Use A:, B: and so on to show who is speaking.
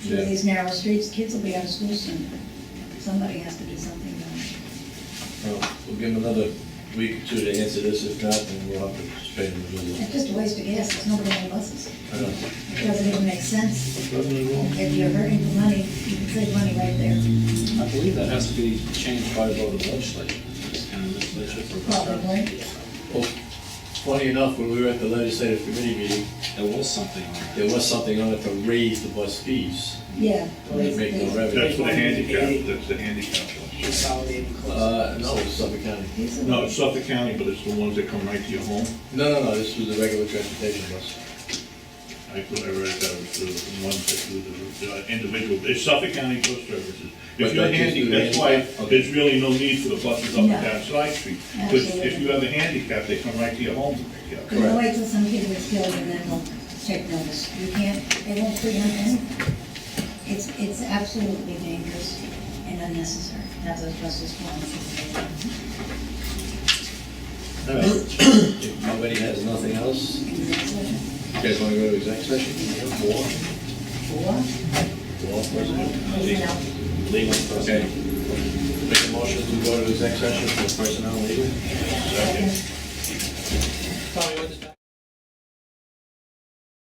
A: few of these narrow streets, kids will be out of school soon. Somebody has to do something about it.
B: Well, We'll give them another week or two to answer this, if not, then we'll have to suspend the visit.
A: It's just a waste of gas, there's nobody on buses.
B: I know.
A: It doesn't even make sense.
B: Doesn't it all?
A: If you're hurting for money, you can save money right there,
C: I believe that has to be changed by a vote of the legislature. It's kind of legislature for-
A: probably.
B: Well, Funny enough, when we were at the legislative committee meeting,
C: There was something on it.
B: there was something on it to raise the bus fees,
A: Yeah.
B: to make no
D: That's
B: revenue.
D: the handicap, that's the handicap one.
E: consolidating cluster.
B: Uh, no, it was Suffolk County.
A: These are-
D: No, it's Suffolk County, but it's the ones that come right to your home.
B: No, no, no, this was the regular transportation bus.
D: I thought I read that was the ones that do the- the individual, it's Suffolk County Bus Services. If
B: But
D: you're
B: that gives you
D: handicapped, that's why
B: handicap? Okay.
D: there's really no need for the buses up and
A: No.
D: down side street. Because if
A: Absolutely.
D: you have a handicap, they come right to your home to pick you up.
A: Because wait till some kid gets killed and then we'll take notice. You can't, they won't prevent anything. It's, it's absolutely dangerous and unnecessary, to have those buses flying.
B: All right. If Uh, nobody has nothing else,
A: in the session.
B: you guys wanna go to exec session? War?
A: Four,
B: War,
A: uh,
B: president?
A: you know,
B: Legal. Okay. Make a motion to go to exec session for